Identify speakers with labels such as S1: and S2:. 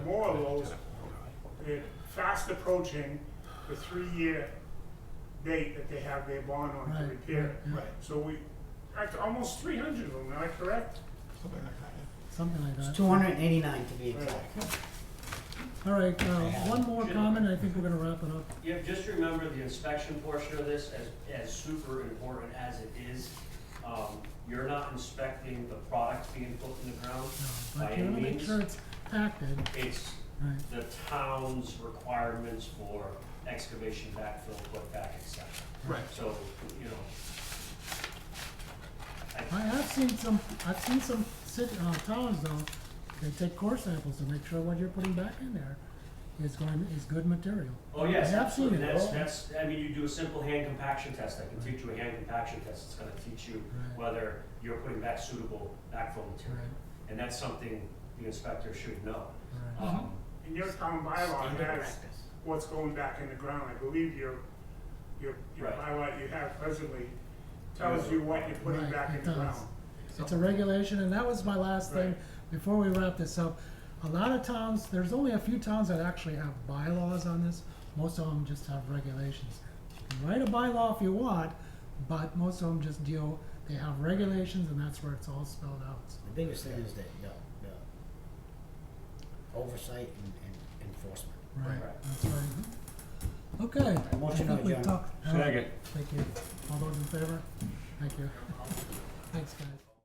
S1: more of those, they're fast approaching the three-year date that they have their bond on to
S2: Right,
S1: repair it.
S2: right,
S3: Right,
S1: So we, act- almost three hundred of them, am I correct?
S3: something like that.
S2: Something like
S4: It's
S2: that.
S4: two hundred and eighty-nine to be exact.
S2: All right, uh,
S5: Yeah.
S2: one more comment, I think we're gonna wrap it up.
S5: Yeah, just remember the inspection portion of this, as, as super important as it is, um, you're not inspecting the product being put in the ground.
S2: No,
S5: By
S2: But you
S5: any
S2: wanna make
S5: means.
S2: sure it's acted,
S5: It's
S2: right,
S5: the town's requirements for excavation, backfill, putback, et cetera.
S3: Right.
S5: So, you know,
S2: I have seen some, I've seen some city, uh, towns though, they take core samples to make sure what you're putting back in there is going, is good material.
S5: Oh, yes,
S2: I have seen
S5: absolutely,
S2: it,
S5: that's,
S2: oh.
S5: that's, I mean, you do a simple hand compaction test, I can teach you a hand compaction test, it's gonna teach you
S2: Right.
S5: whether you're putting back suitable backfill material.
S2: Right.
S5: And that's something the inspector should know.
S2: Right.
S5: Um,
S1: And your town bylaw has what's going back in the ground, I believe your, your, your
S5: Right.
S1: bylaw you have presently tells you what you're putting
S2: Right,
S1: back
S2: it
S1: in the
S2: does.
S1: ground.
S2: It's a regulation, and that was my last thing,
S1: Right.
S2: before we wrap this up. A lot of towns, there's only a few towns that actually have bylaws on this, most of them just have regulations. You can write a bylaw if you want, but most of them just deal, they have regulations, and that's where it's all spelled out. So,
S4: The biggest thing is that, the, the oversight and, and enforcement.
S2: Right,
S5: Right.
S2: that's right. Okay. I
S4: Motion
S2: think we've
S4: adjourned.
S2: talked- all right,
S5: Second.
S2: Thank you. All those in favor? Thank you. Thanks, guys.